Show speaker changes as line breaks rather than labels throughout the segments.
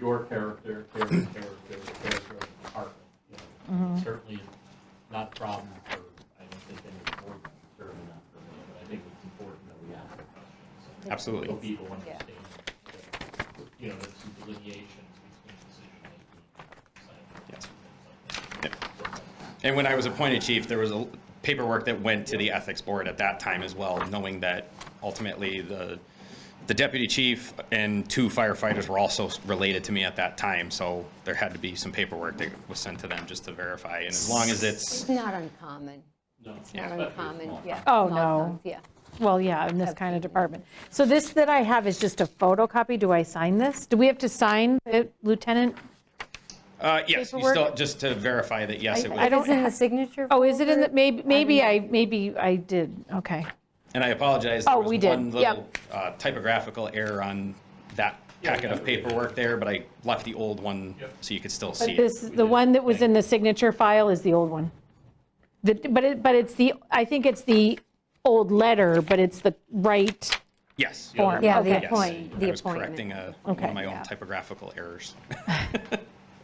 your character, character, character, character of the department. you know. Certainly not a problem for, I don't think any board, members, certainly not for me, but I think it's important that we ask the questions.
Absolutely.
So people
Yeah.
understand, that, you know, there's some delineations between decision making. science,
Yes.
and things like that.
And when I was appointed chief, there was a paperwork that went to the ethics board at that time as well, knowing that ultimately the, the deputy chief and two firefighters were also related to me at that time, so there had to be some paperwork that was sent to them just to verify, and as long as it's,
It's not uncommon.
No.
It's not
especially
uncommon,
small.
yeah. small
Oh, no.
towns, Yeah.
Well, yeah, in this kind of department. So this that I have is just a photocopy. Do I sign this? Do we have to sign it, Lieutenant?
uh, yes, you still,
Paperwork?
just to verify that, yes, it
I
was.
don't
It's in the
have-
signature.
Oh, is it in the,
folder.
maybe,
don't
maybe
know.
I, maybe I did, okay.
And I apologize, there
Oh,
was
we did.
one little
Yep.
uh, typographical error on that
Yeah,
packet of
we got it.
paperwork there, but I left the old one
Yep.
so you could still see
But
it.
this, the one that was in the signature file is the old one. The- But it, but it's the, I think it's the old letter, but it's the right,
Yes.
Form.
Yeah, the
Okay.
Yes,
appoint,
I
the
was correcting
appointment.
a, one
Okay.
of my own
Yeah.
typographical errors.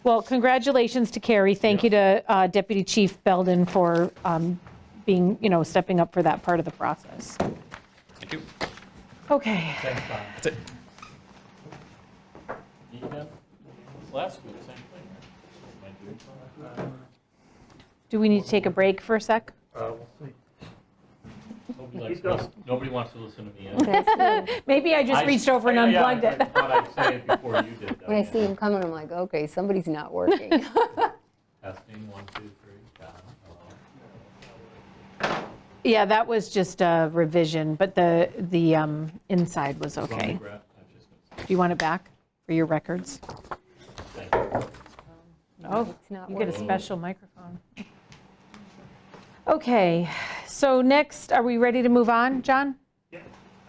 well, congratulations to Carrie. Thank you to uh, Deputy Chief Belden for um, being, you know, stepping up for that part of the process.
Thank you.
Okay.
Thanks, Bob.
That's it.
You know, Last week, same thing, right? Might do it.
Do we need to take a break for a sec?
Nobody likes, lis- nobody wants to listen to me.
That's it.
Maybe I just
I-
reached over and
I- yeah,
unplugged
I
it.
thought I'd say it before you did.
When I see
Diane.
him coming, I'm like, okay, somebody's not working.
Testing, one, two, three, Oh, John, hello.
Yeah, that was just a revision, but the, the um, inside was okay.
Ronnie
Do
Brett, I was just gonna
you want it back for your records?
say, thank you.
Oh,
It's not
you get a
working.
special microphone. Okay, so next, are we ready to move on, John? Yeah.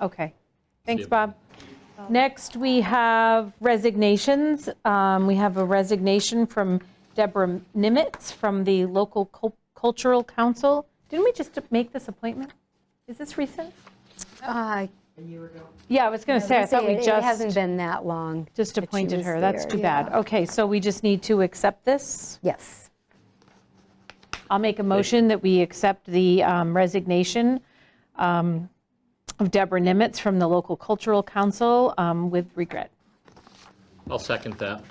Okay, thanks,
you.
Bob. Next, we have resignations. Um, We have a resignation from Deborah Nimitz from the local Cul- cultural council. Didn't we just make this appointment? Is this recent?
Uh,
Yeah, I was going to say, I
let's
thought
see,
we
it-
just.
It hasn't been that long.
Just
that she
appointed
was
her, that's
there,
too
yeah.
bad. Okay, so we just need to accept this?
Yes.
I'll make a motion that we accept the um, resignation um, of Deborah Nimitz from the local cultural council um, with regret.
I'll second that.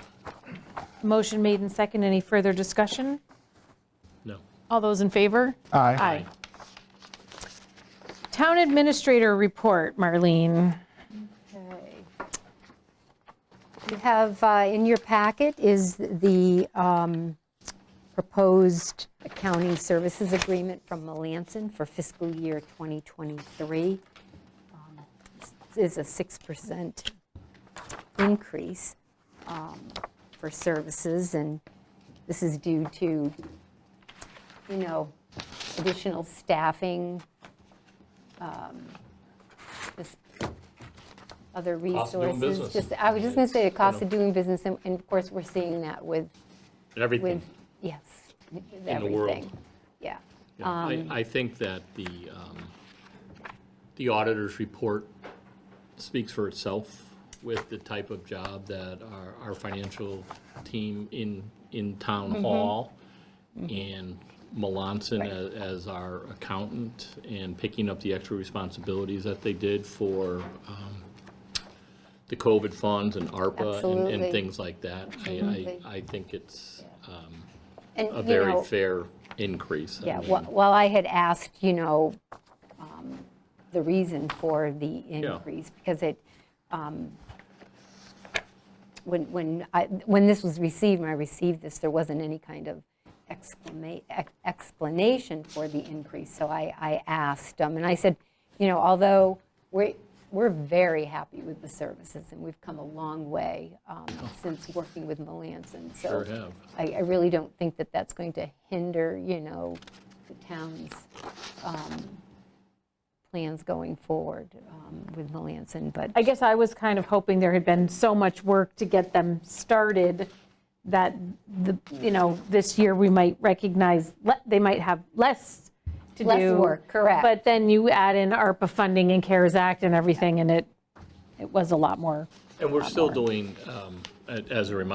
Motion made and second, any further discussion?
No.
All those in favor?
Aye.
Aye. Town administrator report, Marlene.
You have, uh, in your packet is the
uh,
um, proposed accounting services agreement from Melanson for fiscal year 2023. Um, This is a 6% increase um, for services, and this is due to, you know, additional staffing, um, just other
Cost of doing
resources.
business.
Just I was just going to say the cost of doing business, and and of course, we're seeing that with, with,
everything
yes, with
in the world.
everything. Yeah.
Yeah,
Um,
I, I think that the, um, the auditor's report speaks for itself with the type of job that our, our financial team in, in town
Mm-hmm.
hall and Melanson a- as our accountant and picking up the extra responsibilities that they did for um, the COVID funds and ARPA and-
Absolutely. Mm-hmm.
and things like that. I, I, I think it's um,
And,
a
you
very
know,
fair increase. Um, I
Yeah,
mean,
wh- while I had asked, you know, um, the reason for the increase, because it, um, when, when I, when this was received, when I received this, there wasn't any kind of exclama- ex- explanation for the increase, so I, I asked, um, and I said, you know, although we're, we're very happy with the services, and we've come a long way um, since working with Melanson, so.
Oh. Sure have.
I, I really don't think that that's going to hinder, you know, the town's um, plans going forward um, with Melanson, but
I guess I was kind of hoping there had been so much work to get them started that the, you know, this year we might recognize, le- they might have less to do.
Less work, correct.
But then you add in ARPA funding and CARES Act and everything, and it, it was a lot more.
And we're still doing um,
a- as a reminder